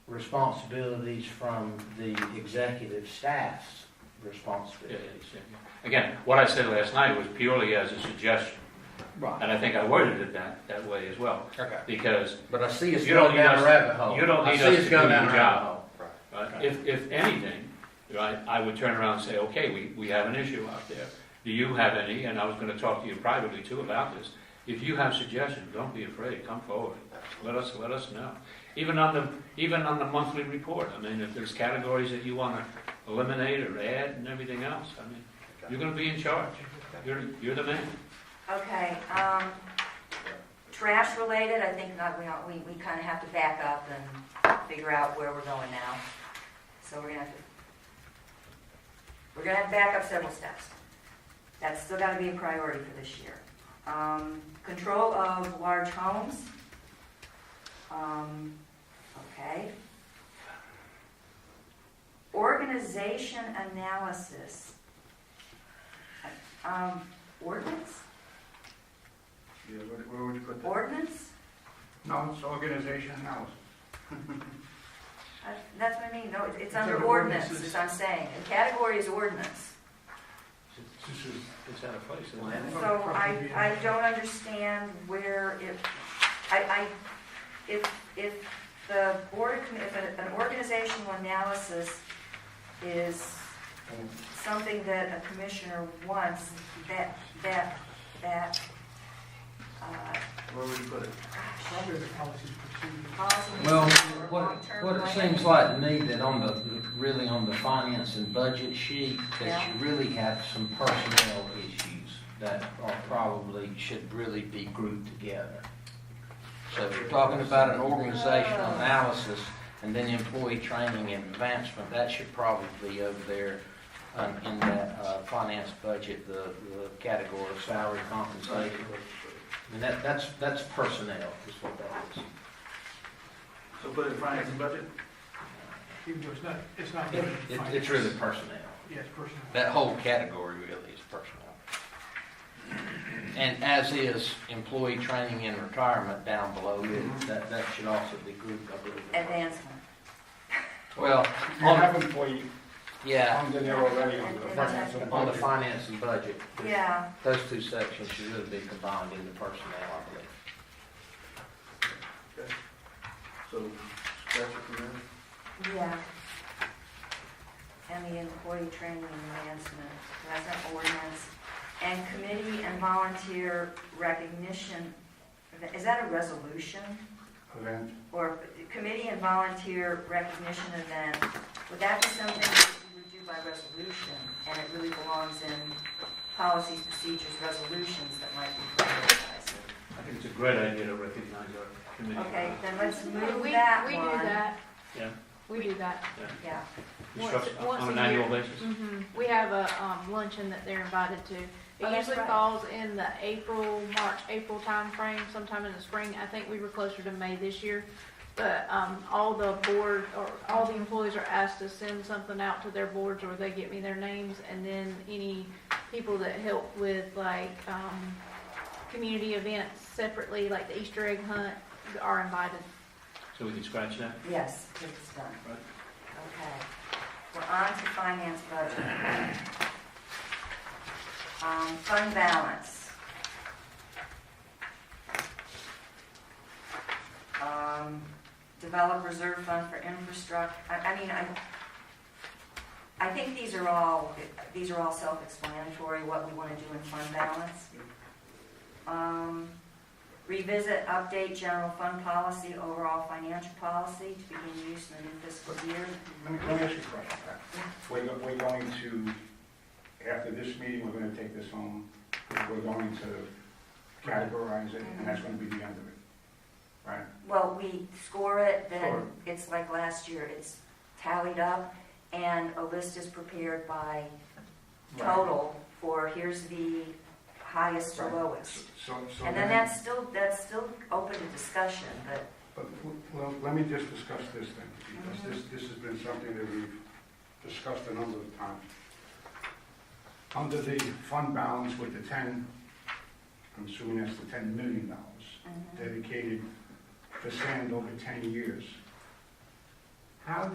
responsibilities from the executive staff's Yeah, yeah, responsibilities. yeah, yeah. Again, what I said last night was purely as a suggestion, Right. and I think I worded it that, that way as well, Okay. because But I see us You don't going need down us- a rabbit hole. you don't I need see us us to going do down your a rabbit hole. Uh, Okay. If, if anything, right, I would turn around and say, okay, we, we have an issue out there. Do you have any? And I was gonna talk to you privately too about this. If you have suggestions, don't be afraid, come forward. Let us, let us know. Even on the, even on the monthly report, I mean, if there's categories that you wanna eliminate or add and everything else, I mean, you're gonna be in charge. You're, you're the man. Okay, um, trash related, I think not, we, don't- we, we kinda have to back up and figure out where we're going now. So we're gonna have to, we're gonna have to back up several steps. That's still gotta be a priority for this year. Um, control of large homes. Um, okay. Organization analysis. Um, ordinance? Yeah, where, where would you put that? Ordinance? No, it's organization house. I- Uh, That's what I mean, no, it- it's It's under under ordinance, ordinances. as I'm saying, the category is ordinance. It's out of place, isn't it? So I, I don't understand where if, I, I, if, if the board, of commi- if an an organizational analysis is something that a commissioner wants, that, that, that, uh, Where would you put it? gosh, policy. Well, or what, long-term what it plan. seems like to me that on the, really on the finance and budget sheet, that you really have some personnel issues that are probably, should really be grouped together. So if you're talking about an organizational analysis and then employee training and advancement, that should probably be over there um, in that, uh, finance budget, the, the category of salary compensation. And that, that's, that's personnel is what that is. So put it in finance and budget? Even though it's not, it's not. It, limited to it- finance. it's really personnel. Yeah, it's personal. That whole category really is personnel. And as is employee training and retirement down below it, that, that should also be grouped, I believe. Advancement. Well, You have employee yeah, under there already on the finance and on the budget. finance and budget, Yeah. those two sections should really be combined into personnel, I believe. So scratch it from there? Yeah. And the employee training enhancement, that's an ordinance. And committee and volunteer recognition, is that a resolution? Event. Or committee and volunteer recognition event, would that be something that you would do by resolution? And it really belongs in policies, procedures, resolutions that might be prioritized? I think it's a great idea to recognize our committee. Okay, then let's move We, that we one. do that. Yeah. We do that. Yeah, Once- Construction- once On a an annual basis. hmm We have a, um, luncheon that they're invited to. Oh, It that's usually right. falls in the April, March, April timeframe, sometime in the spring. I think we were closer to May this year. But, um, all the board, or all the employees are asked to send something out to their boards, or they get me their names, and then any people that help with like, um, community events separately, like the Easter egg hunt, are invited. So we can scratch that? yes, it's done. Right. Okay, we're on to finance budget. Um, fund balance. Um, develop reserve fund for infrastructure, I, I mean, I, I think these are all, these are all self-explanatory, what we wanna do in fund balance. Um, revisit, update general fund policy, overall financial policy to begin use in the new fiscal year. Let me, let me ask you a question. We're, go- we're going to, after this meeting, we're gonna take this home, we're going to categorize it, and that's gonna be the end of it. Right? Well, we score it, Score then it's like last year, it's tallied up, and a list is prepared by total for here's the highest to Right. lowest. So, so. And then that's still, that's still open to discussion, but, But, w- well, let me just discuss this then, because this, this has been something that we've discussed a number of times. Under the fund balance with the ten, I'm assuming that's the ten million dollars. mhm. dedicated to sand over 10 years. How